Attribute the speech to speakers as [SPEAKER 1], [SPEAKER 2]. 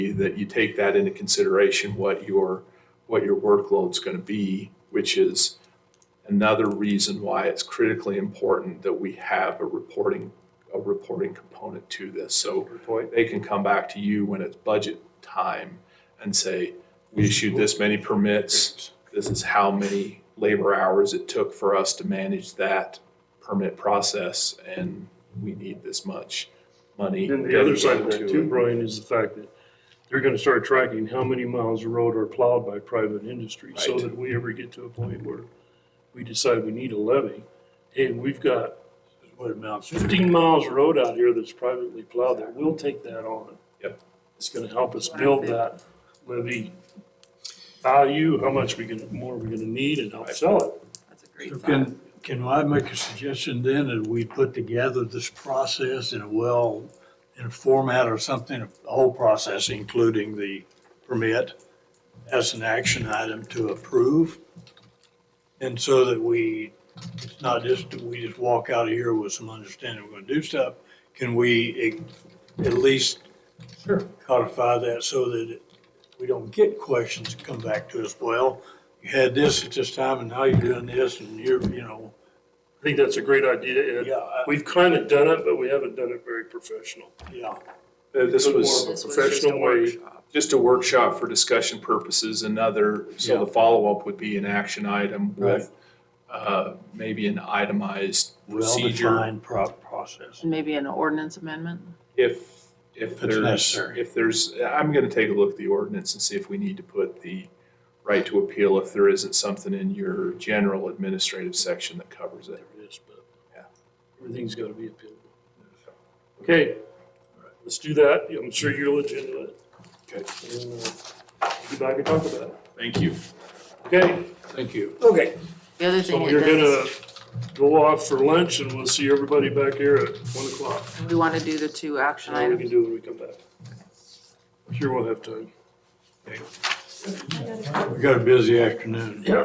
[SPEAKER 1] you- that you take that into consideration, what your, what your workload's gonna be, which is another reason why it's critically important that we have a reporting, a reporting component to this. So they can come back to you when it's budget time and say, we issued this many permits, this is how many labor hours it took for us to manage that permit process, and we need this much money.
[SPEAKER 2] Then the other side of
[SPEAKER 1] dedicated
[SPEAKER 2] that
[SPEAKER 1] to
[SPEAKER 2] too,
[SPEAKER 1] it.
[SPEAKER 2] Brian, is the fact that they're gonna start tracking how many miles of road are plowed by private industry. So
[SPEAKER 1] Right.
[SPEAKER 2] that we ever get to a point where we decide we need a levy, and we've got, what amounts, fifteen miles of road out here that's privately plowed, that we'll take that on.
[SPEAKER 1] Yep.
[SPEAKER 2] It's gonna help us build that levy value, how much we can, more we're gonna need and help sell it.
[SPEAKER 3] That's a great
[SPEAKER 4] So
[SPEAKER 3] thought.
[SPEAKER 4] Can, can I make a suggestion then that we put together this process in a well, in a format or something, the whole process, including the permit, as an action item to approve? And so that we, it's not just, that we just walk out of here with some understanding we're gonna do stuff. Can we e, at at least
[SPEAKER 1] Sure.
[SPEAKER 4] codify that so that it- we don't get questions that come back to us, well, you had this at this time and now you're doing this and you're, you know,
[SPEAKER 2] I think that's a great idea, Ed.
[SPEAKER 4] yeah, I-
[SPEAKER 2] We've kinda done it, but we haven't done it very professional.
[SPEAKER 4] yeah.
[SPEAKER 1] Uh, This
[SPEAKER 2] Put
[SPEAKER 1] was.
[SPEAKER 2] more of a
[SPEAKER 3] This was just a
[SPEAKER 2] professional way.
[SPEAKER 3] workshop.
[SPEAKER 1] Just a workshop for discussion purposes, another, so the follow-up would be an action item
[SPEAKER 4] Right.
[SPEAKER 1] with uh, maybe an itemized procedure.
[SPEAKER 4] Well-defined pro- process.
[SPEAKER 3] And maybe an ordinance amendment?
[SPEAKER 1] If, if
[SPEAKER 4] If it's
[SPEAKER 1] there's,
[SPEAKER 4] necessary.
[SPEAKER 1] if there's, I'm gonna take a look at the ordinance and see if we need to put the right to appeal if there isn't something in your general administrative section that covers it.
[SPEAKER 2] there is, but
[SPEAKER 1] Yeah.
[SPEAKER 2] everything's gotta be appealable. Okay, let's do that. I'm sure you're legitimate.
[SPEAKER 1] Okay.
[SPEAKER 2] And, uh, we'll Be back and talk about it.
[SPEAKER 1] Thank you.
[SPEAKER 2] Okay,
[SPEAKER 4] Thank you.
[SPEAKER 2] okay.
[SPEAKER 3] The other
[SPEAKER 2] So
[SPEAKER 3] thing it
[SPEAKER 2] you're gonna
[SPEAKER 3] does,
[SPEAKER 2] go off for lunch and we'll see everybody back here at one o'clock.
[SPEAKER 3] we want to do the two action
[SPEAKER 2] And we can
[SPEAKER 3] items.
[SPEAKER 2] do it when we come back. Sure we'll have time.
[SPEAKER 4] We got a busy afternoon.